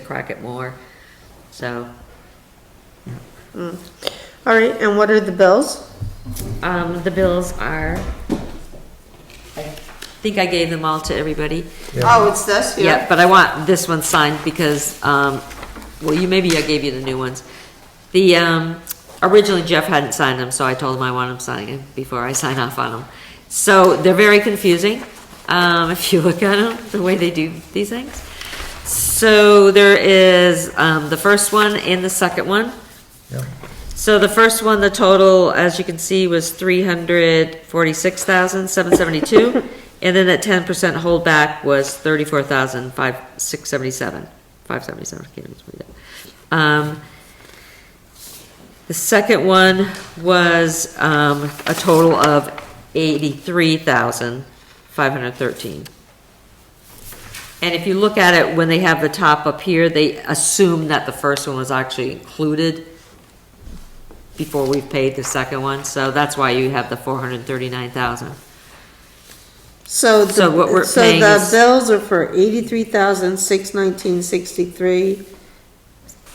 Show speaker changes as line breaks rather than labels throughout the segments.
crack it more. So,
All right, and what are the bills?
um, the bills are, I think I gave them all to everybody.
Oh, it's this,
Yeah, but I want this one signed because, um, well, you, maybe I gave you the new ones. The, um, originally Jeff hadn't signed them, so I told him I want him signing them before I sign off on them. So they're very confusing, um, if you look at them, the way they do these things. So there is, um, the first one and the second one.
Yeah.
So the first one, the total, as you can see, was three hundred forty-six thousand, seven seventy-two. And then that ten percent holdback was thirty-four thousand, five, six seventy-seven, five seventy-seven, I can't even read that. Um, the second one was, um, a total of eighty-three thousand, five hundred thirteen. And if you look at it, when they have the top up here, they assume that the first one was actually included before we've paid the second one, so that's why you have the four hundred and thirty-nine thousand.
So, the-
So what we're
so
paying
the
is-
bills are for eighty-three thousand, six nineteen, sixty-three,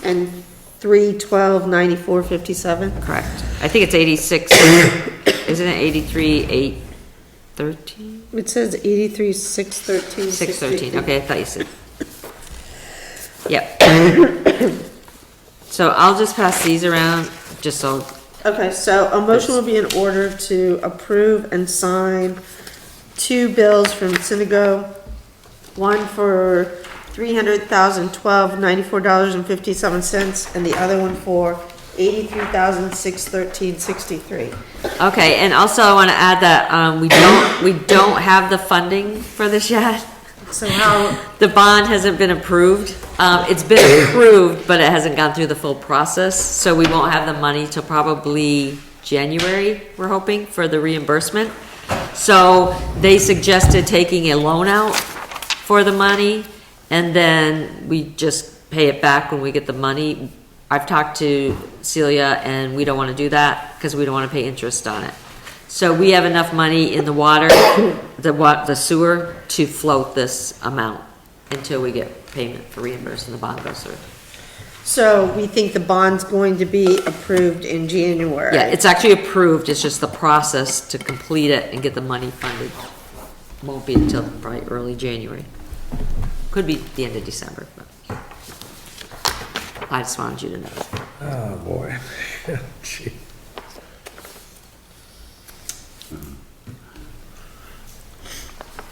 and three twelve, ninety-four, fifty-seven?
Correct. I think it's eighty-six, isn't it eighty-three, eight thirteen?
It says eighty-three, six thirteen,
Six
sixty-three.
thirteen, okay, I thought you said. Yep. So I'll just pass these around, just so,
Okay, so a motion will be in order to approve and sign two bills from Sinago. One for three hundred thousand twelve ninety-four dollars and fifty-seven cents, and the other one for eighty-three thousand six thirteen sixty-three.
okay, and also I wanna add that, um, we don't, we don't have the funding for this yet.
So how,
The bond hasn't been approved. Um, it's been approved, but it hasn't gone through the full process, so we won't have the money till probably January, we're hoping, for the reimbursement. So they suggested taking a loan out for the money, and then we just pay it back when we get the money. I've talked to Celia, and we don't wanna do that, cause we don't wanna pay interest on it. So we have enough money in the water, the wa, the sewer, to float this amount until we get payment for reimbursing the bond goes through.
so we think the bond's going to be approved in January?
Yeah, it's actually approved, it's just the process to complete it and get the money funded won't be until probably early January. Could be the end of December, but I just wanted you to know.
Oh, boy. Gee.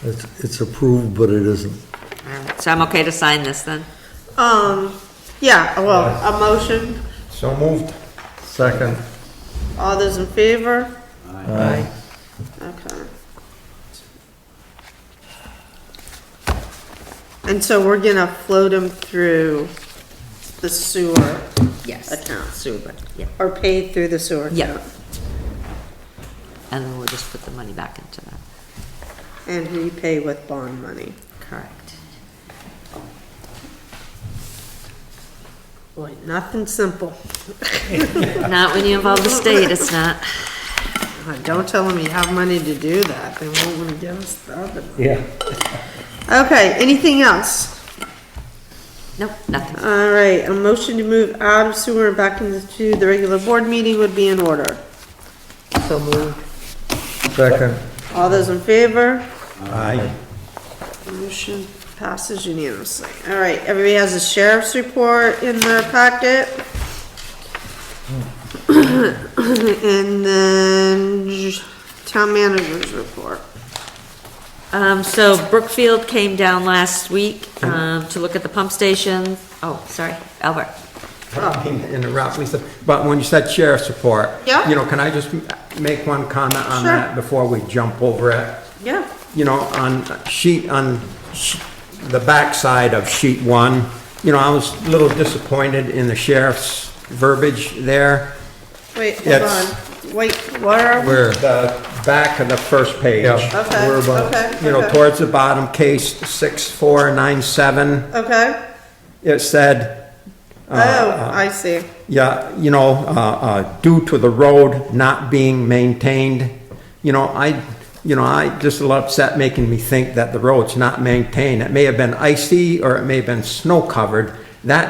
It's, it's approved, but it isn't.
All right, so I'm okay to sign this then?
Um, yeah, well, a motion,
So moved. Second.
all those in favor?
Aye.
Okay. And so we're gonna float them through the sewer,
Yes.
Account.
Sewer, budget, yeah.
or pay through the sewer
Yeah.
account,
And then we'll just put the money back into that.
and repay with bond money.
Correct.
Boy, nothing simple.
Not when you involve the state, it's not.
Uh, Don't tell them you have money to do that, they won't wanna give us the other.
Yeah.
Okay, anything else?
Nope, nothing.
All right, a motion to move out of sewer and back into the regular board meeting would be in order.
So moved.
Second.
All those in favor?
Aye.
Motion passes unanimously. All right, everybody has a sheriff's report in their packet. And then town manager's report.
Um, so Brookfield came down last week, um, to look at the pump station. Oh, sorry, Albert.
I mean, interrupt, Lisa, but when you said sheriff's report.
Yeah.
You know, can I just m- make one comment on
Sure.
that before we jump over it?
Yeah.
You know, on sheet, on sh- the backside of sheet one, you know, I was a little disappointed in the sheriff's verbiage there.
Wait, hold
It's-
on. Wait, where are we?
Where?
The back of the first page.
Yeah.
Okay,
We're about-
okay,
You know,
okay.
towards the bottom, case 6497,
Okay.
it said,
Oh, I see.
Yeah, you know, uh, uh, due to the road not being maintained, you know, I, you know, I, just a little upset making me think that the road's not maintained. It may have been icy or it may have been snow covered, That